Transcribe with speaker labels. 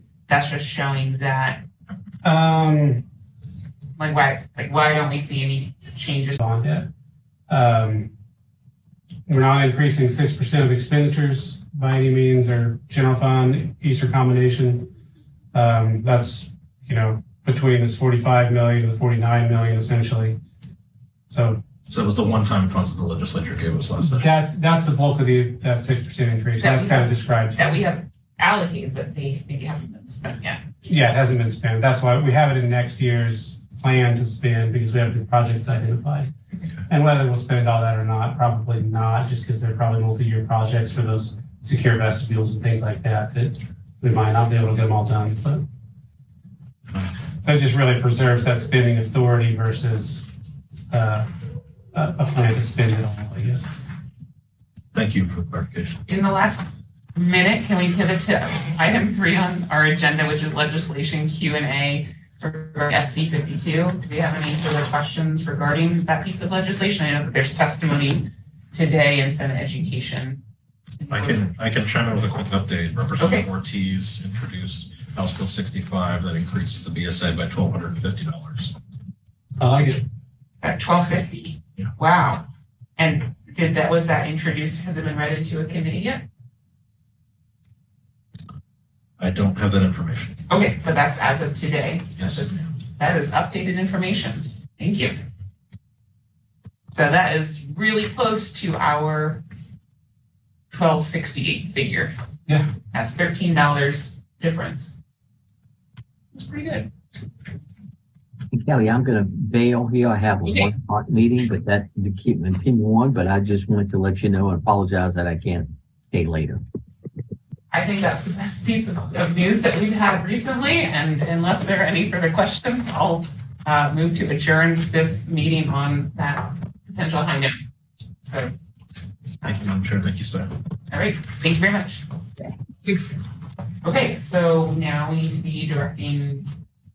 Speaker 1: that's just showing that,
Speaker 2: Um,
Speaker 1: like, why, like, why don't we see any changes?
Speaker 2: on debt. Um, we're not increasing six percent of expenditures by any means or general fund, Easter combination. Um, that's, you know, between this forty-five million and the forty-nine million essentially. So
Speaker 3: So it was the one-time funds that the legislature gave us last session.
Speaker 2: that's, that's the bulk of the, that six percent increase.
Speaker 1: That we
Speaker 2: That's kind of
Speaker 1: have-
Speaker 2: described.
Speaker 1: That we have allocated, but they maybe haven't been spent yet.
Speaker 2: Yeah, it hasn't been spent. That's why we have it in next year's plan to spend because we have the projects identified. And whether we'll spend all that or not, probably not, just because they're probably multi-year projects for those secure vestibules and things like that, that we might not be able to get them all done, but that just really preserves that spending authority versus uh, a a plan to spend it all, I guess.
Speaker 3: Thank you for the clarification.
Speaker 1: In the last minute, can we pivot to item three on our agenda, which is legislation Q and A for SB fifty-two? Do we have any further questions regarding that piece of legislation? I know that there's testimony today in Senate Education.
Speaker 3: I can, I can chime in with a quick update. Representative Ortiz introduced House Bill 65 that increases the BSA by $1,250.
Speaker 2: I like it.
Speaker 1: At twelve fifty?
Speaker 3: Yeah.
Speaker 1: Wow. And did that, was that introduced, has it been read into a committee yet?
Speaker 3: I don't have that information.
Speaker 1: Okay, but that's as of today.
Speaker 3: Yes.
Speaker 1: That is updated information. Thank you. So that is really close to our twelve sixty-eight figure.
Speaker 2: Yeah.
Speaker 1: That's thirteen dollars difference. That's pretty good.
Speaker 4: Kelly, I'm gonna bail here. I have a
Speaker 1: Okay.
Speaker 4: one part meeting, but that to keep continue on, but I just wanted to let you know and apologize that I can't stay later.
Speaker 1: I think that's the best piece of, of news that we've had recently, and unless there are any further questions, I'll uh, move to adjourn this meeting on that potential high note. So,
Speaker 3: Thank you, Madam Chair. Thank you, staff.
Speaker 1: all right, thank you very much.
Speaker 4: Okay.
Speaker 1: Okay, so now we need to be directing